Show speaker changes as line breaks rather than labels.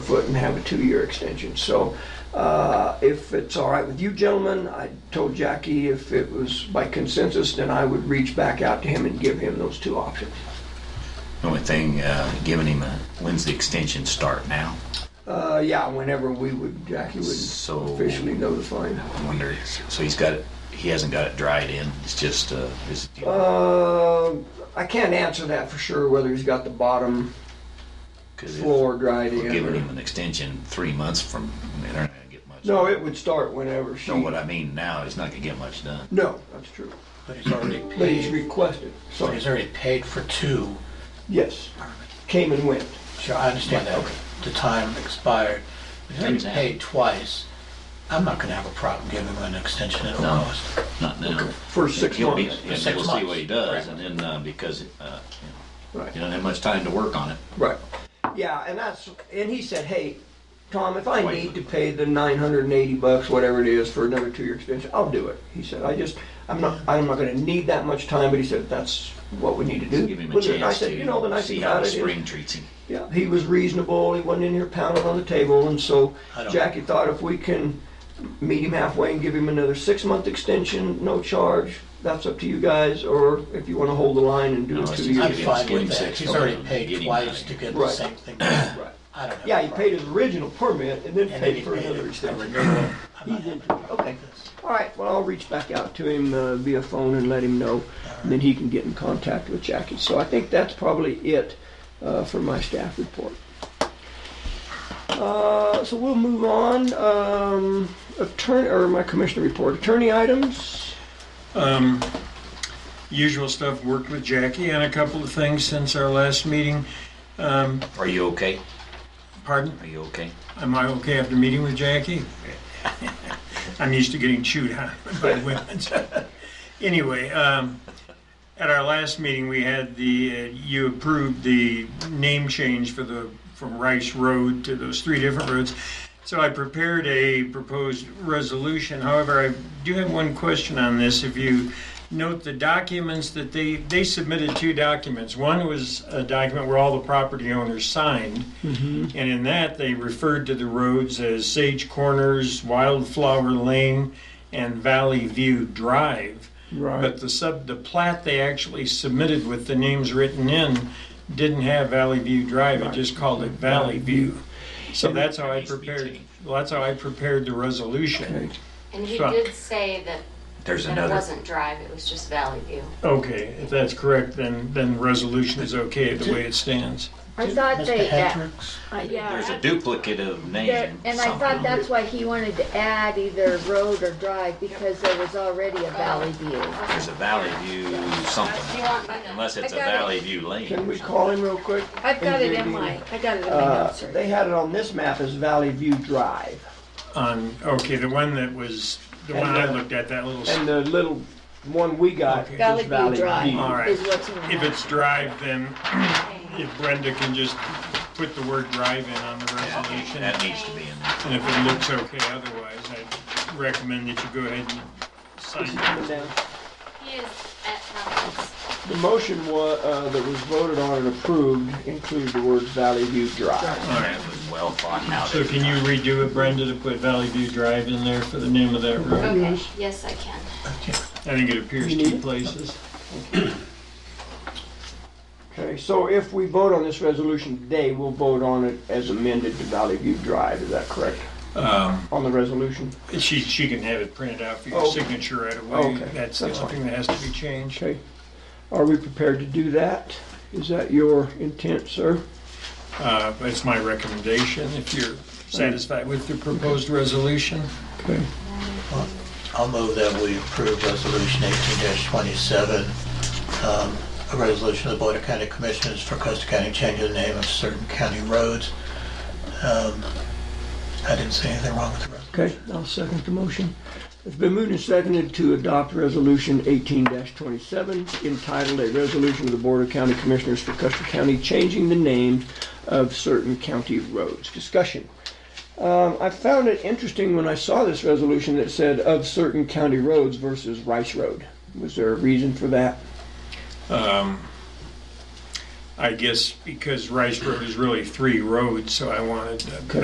foot and have a two-year extension. So uh, if it's all right with you gentlemen, I told Jackie if it was by consensus, then I would reach back out to him and give him those two options.
The Only thing, uh, giving him a, when's the extension start now?
Uh, Yeah, whenever we would, Jackie would
So-
officially notify him.
I wonder, so he's got it, he hasn't got it dried in, it's just, uh, is,
Uh, I can't answer that for sure, whether he's got the bottom
cause if
floor dried
we're
in.
giving
or-
him an extension three months from, they're not gonna get much.
No, it would start whenever she.
Know what I mean now, he's not gonna get much done.
No, that's true.
But he's already
But he's
paid,
requested,
but
so,
he's already paid for two.
yes, came and went.
Sure, I understand that, the time expired. If he's already
Exactly.
paid twice, I'm not gonna have a problem giving him an extension at
No.
all. cost.
Not now.
For six
He'll be-
months.
And
Six
we'll see
months.
what he does, and then, uh, because, uh,
Right.
you don't have much time to work on it.
Right. Yeah, and that's, and he said, hey, Tom, if I
Wait.
need to pay the nine hundred and eighty bucks, whatever it is, for another two-year extension, I'll do it. He said, I just, I'm not, I'm not gonna need that much time, but he said, that's what we need to do.
Give him a
With it. And I
chance
said, you know, the
to
nice thing
see how
about
the
it is,
spring treats him.
yeah, he was reasonable, he wasn't in here pounding on the table, and so
I don't-
Jackie thought if we can meet him halfway and give him another six-month extension, no charge, that's up to you guys, or if you wanna hold the line and do
No,
it
it's
two
just-
years.
I'm
Give him-
fine
give him
with that,
six
he's
for
already
him. Get
paid
him
twice
out.
to get the
Right.
same thing.
Right.
I don't have.
Yeah,
a
he paid his
problem.
original permit and then
And then
paid
he
for
paid
another
it, a
extension.
renewal. I'm
He's
not
in,
having a problem
okay.
with this.
All right, well, I'll reach back out to him uh, via phone and let him know, and then he can get in contact with Jackie. So I think that's probably it uh, for my staff report. Uh, So we'll move on. Um, Attorney, or my commissioner report, attorney items?
Um, Usual stuff, worked with Jackie on a couple of things since our last meeting. Um,
Are you okay?
Pardon?
Are you okay?
Am I okay after meeting with Jackie? I'm used to getting chewed out by women. so. Anyway, um, at our last meeting, we had the, uh, you approved the name change for the, from Rice Road to those three different roads. So I prepared a proposed resolution. However, I do have one question on this. If you note the documents that they, they submitted two documents. One was a document where all the property owners signed. Mm-hmm. And in that, they referred to the roads as Sage Corners, Wildflower Lane, and Valley View Drive. But the sub, the plat they actually submitted with the names written in didn't have Valley View Drive, it just called it Valley View. So that's how I
Needs to be
prepared,
changed.
well, that's how I prepared the resolution.
And he
Truck.
did say that,
There's
that it
another.
wasn't drive, it was just Valley View.
Okay, if that's correct, then, then the resolution is okay the way it stands.
I thought
Mr.
they, that-
Hendricks,
uh,
There's
yeah.
a duplicate of
there-
name.
And I
somewhere.
thought that's why he wanted to add either road or drive because there was already a Valley View.
There's a Valley View
Do
something,
you want me to-
unless it's a
I got it.
Valley View
Can
Lane.
we call him real quick?
I've got it in my, I got it in my
Uh,
notes.
They had it on this map as Valley View Drive,
On, okay, the one that was, the one I looked at, that little.
and the little one we got is
Valley View
Valley
Drive.
View.
All right.
Is what's in the
If it's drive, then if Brenda can just put the word drive in on the resolution,
That needs to be in there.
and if it looks okay otherwise, I'd recommend that you go ahead and
Is
sign
he
it.
coming down?
He is at conference.
The motion wa, uh, that was voted on and approved included the words Valley View Drive.
That was well thought out.
So can you redo it, Brenda, to put Valley View Drive in there for the name of that road?
Okay, yes, I can.
I think it appears two places.
Okay, so if we vote on this resolution today, we'll vote on it as amended to Valley View Drive, is that correct?
Um,
On the resolution?
She, she can have it printed out for your
Okay.
signature right away.
Okay,
That's the
that's
only thing that has to be changed.
Okay. Are we prepared to do that? Is that your intent, sir?
Uh, It's my recommendation, if you're satisfied with the proposed resolution.
Okay.
I'll move that we approve Resolution 18-27, um, a resolution of the Board of County Commissioners for Custer County changing the name of certain county roads. Um, I didn't see anything wrong with the resolution.
Okay, I'll second the motion. It's been moved and seconded to adopt Resolution 18-27 entitled "A Resolution of the Board of County Commissioners for Custer County Changing the Name of Certain County Roads." Discussion. Um, I found it interesting when I saw this resolution that said "of certain county roads" versus Rice Road. Was there a reason for that?
Um, I guess because Rice Road is really three roads, so I wanted to